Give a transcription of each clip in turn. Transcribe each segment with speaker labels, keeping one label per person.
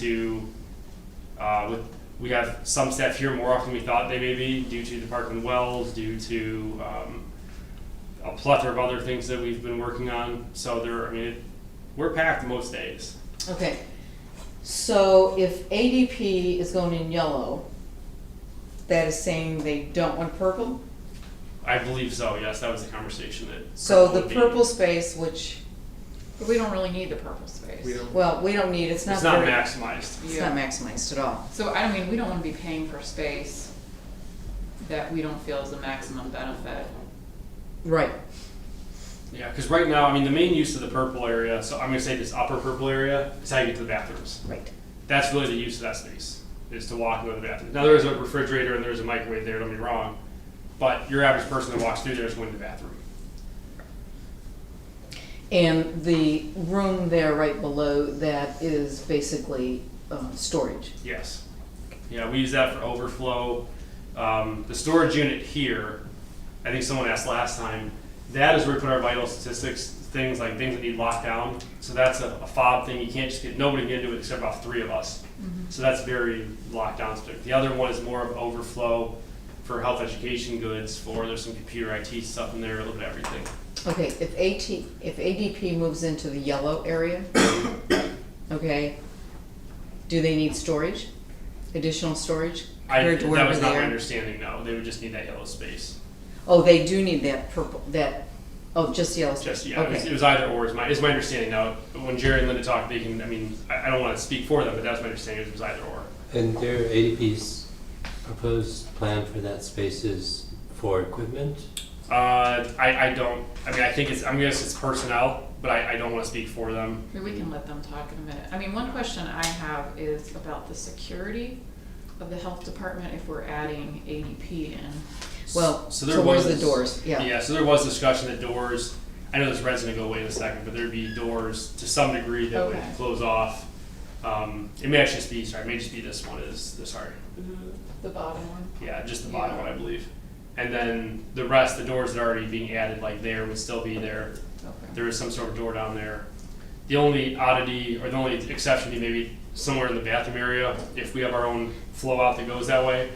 Speaker 1: to, uh, with, we have some staff here more often than we thought they may be due to the Parkland Wells, due to, um, a plethora of other things that we've been working on. So there, I mean, it, we're packed most days.
Speaker 2: Okay, so if ADP is going in yellow, that is saying they don't want purple?
Speaker 1: I believe so, yes, that was the conversation that.
Speaker 2: So the
Speaker 1: would be-
Speaker 2: purple space, which,
Speaker 3: But we don't really need the purple space.
Speaker 4: We don't,
Speaker 2: well, we don't need, it's not
Speaker 1: It's not
Speaker 2: very,
Speaker 1: maximized.
Speaker 2: it's not maximized at all.
Speaker 3: So I mean, we don't wanna be paying for space that we don't feel is the maximum benefit.
Speaker 2: Right,
Speaker 1: Yeah, because right now, I mean, the main use of the purple area, so I'm gonna say this upper purple area, is how you get to the bathrooms.
Speaker 2: right.
Speaker 1: That's really the use of that space, is to walk and go to the bathroom. Now, there is a refrigerator and there's a microwave there, don't be wrong, but your average person that walks through there is going to the bathroom.
Speaker 2: And the room there right below that is basically, um, storage.
Speaker 1: Yes. Yeah, we use that for overflow. Um, the storage unit here, I think someone asked last time, that is where we put our vital statistics, things like things that need lockdown. So that's a, a fob thing. You can't just get, nobody can get into it except about three of us.
Speaker 2: Mm-hmm.
Speaker 1: So that's very locked down specific. The other one is more of overflow for health education goods, for there's some computer IT stuff in there, a little bit of everything.
Speaker 2: Okay, if AT, if ADP moves into the yellow area, okay, do they need storage? Additional storage
Speaker 1: I,
Speaker 2: compared to
Speaker 1: that
Speaker 2: wherever
Speaker 1: was
Speaker 2: they
Speaker 1: not my
Speaker 2: are?
Speaker 1: understanding, no. They would just need that yellow space.
Speaker 2: Oh, they do need that purple, that, oh, just yellow space?
Speaker 1: Just, yeah, it was, it
Speaker 2: Okay,
Speaker 1: was either or is my, is my understanding now. When Jerry and Linda talked, they can, I mean, I, I don't wanna speak for them, but that was my understanding, it was either or.
Speaker 5: And their ADP's proposed plan for that space is for equipment?
Speaker 1: Uh, I, I don't, I mean, I think it's, I'm guess it's personnel, but I, I don't wanna speak for them.
Speaker 3: Maybe we can let them talk in a minute. I mean, one question I have is about the security of the health department if we're adding ADP in.
Speaker 2: well,
Speaker 1: So there
Speaker 2: so where's the
Speaker 1: was-
Speaker 2: doors? Yeah,
Speaker 1: Yeah, so there was discussion that doors, I know this red's gonna go away in a second, but there'd be doors to some degree that would
Speaker 3: Okay.
Speaker 1: close off. Um, it may actually just be, sorry, it may just be this one is, this- sorry,
Speaker 3: The bottom one.
Speaker 1: yeah, just the bottom
Speaker 3: Yeah.
Speaker 1: one, I believe. And then the rest, the doors that are already being added, like there would still be there.
Speaker 3: Okay.
Speaker 1: there is some sort of door down there. The only oddity or the only exception would be maybe somewhere in the bathroom area if we have our own flow out that goes that way.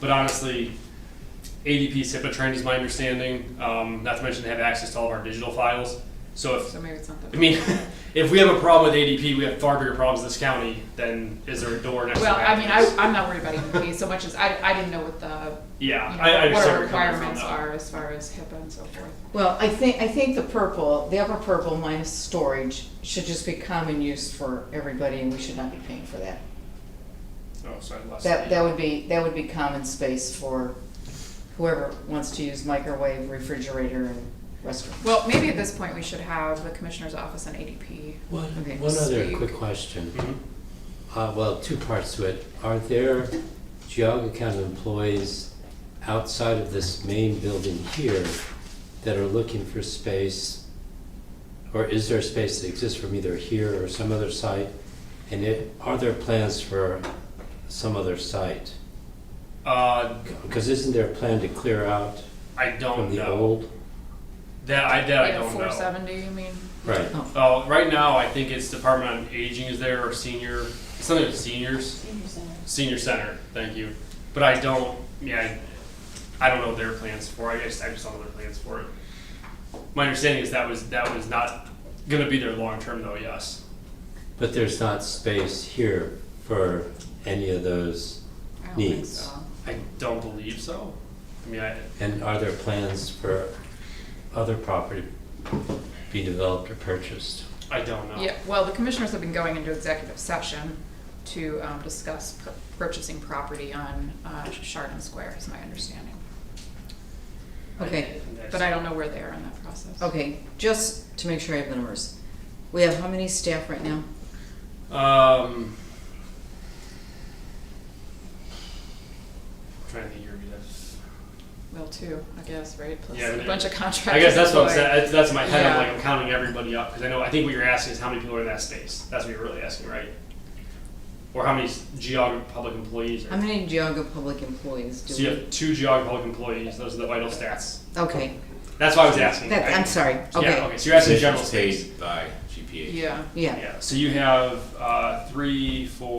Speaker 1: But honestly, ADP's HIPAA trained is my understanding, um, not to mention they have access to all of our digital files. So if,
Speaker 3: So maybe it's not
Speaker 1: I
Speaker 3: the.
Speaker 1: mean, if we have a problem with ADP, we have far bigger problems in this county than is there a door next to
Speaker 3: Well, I mean, I,
Speaker 1: bathrooms.
Speaker 3: I'm not worried about ADP so much as I, I didn't know what the,
Speaker 1: Yeah,
Speaker 3: you
Speaker 1: I, I
Speaker 3: know, what
Speaker 1: understand
Speaker 3: our
Speaker 1: where you're coming from,
Speaker 3: requirements
Speaker 1: though.
Speaker 3: are as far as HIPAA and so forth.
Speaker 2: well, I think, I think the purple, the upper purple minus storage should just be common use for everybody and we should not be paying for that.
Speaker 1: Oh, sorry, I lost
Speaker 2: That,
Speaker 1: the-
Speaker 2: that would be, that would be common space for whoever wants to use microwave, refrigerator, and restroom.
Speaker 3: Well, maybe at this point, we should have the commissioner's office and ADP.
Speaker 5: One,
Speaker 2: Okay.
Speaker 5: one other
Speaker 3: Speak.
Speaker 5: quick question.
Speaker 1: Mhm.
Speaker 5: Uh, well, two parts to it. Are there Geauga County employees outside of this main building here that are looking for space? Or is there space that exists from either here or some other site? And it, are there plans for some other site?
Speaker 1: Uh,
Speaker 5: Because isn't there a plan to clear out
Speaker 1: I don't
Speaker 5: from the
Speaker 1: know.
Speaker 5: old?
Speaker 1: That, I, that I
Speaker 3: Yeah,
Speaker 1: don't know.
Speaker 3: Four seventy, you mean?
Speaker 5: Right.
Speaker 1: Uh, right now, I think it's Department on Aging is there or senior, something with seniors,
Speaker 6: Senior center.
Speaker 1: senior center. Thank you. But I don't, yeah, I, I don't know their plans for. it. I just, I just don't know their plans for it. My understanding is that was that was not going to be their long term though. Yes.
Speaker 5: But there's not space here for any of those,
Speaker 3: I don't think
Speaker 5: Needs.
Speaker 3: so.
Speaker 1: I don't believe so. I mean, I,
Speaker 5: and are there plans for other property be developed or purchased?
Speaker 1: I don't know.
Speaker 3: Yeah, well, the commissioners have been going into executive session to um, discuss pur- purchasing property on uh, Chardon Square, is my understanding.
Speaker 2: Okay.
Speaker 3: But I don't know where they are in that process.
Speaker 2: Okay, just to make sure I have the numbers. We have how many staff right now?
Speaker 1: Um. Trying to think here. That's
Speaker 3: Well, two, I guess, right? Plus
Speaker 1: Yeah, I mean,
Speaker 3: a bunch of contractors.
Speaker 1: I guess that's what I'm
Speaker 3: employed.
Speaker 1: saying. That's, that's in my head. I'm
Speaker 3: Yeah.
Speaker 1: like I'm counting everybody up because I know. I think what you're asking is how many people are in that space. That's what you're really asking, right? Or how many s- geog public employees? Are.
Speaker 2: How many Geauga public employees
Speaker 1: so
Speaker 2: do
Speaker 1: you
Speaker 2: we?
Speaker 1: have two geog public employees. Those are the vital stats.
Speaker 2: Okay,
Speaker 1: That's what I was asking.
Speaker 2: that,
Speaker 1: I-
Speaker 2: I'm sorry,
Speaker 1: Yeah.
Speaker 2: okay.
Speaker 1: Okay. So you're asking the general
Speaker 4: Positions
Speaker 1: space.
Speaker 4: paid by GP. CPA.
Speaker 3: Yeah.
Speaker 2: yeah.
Speaker 1: Yeah, so you have, uh, three, four,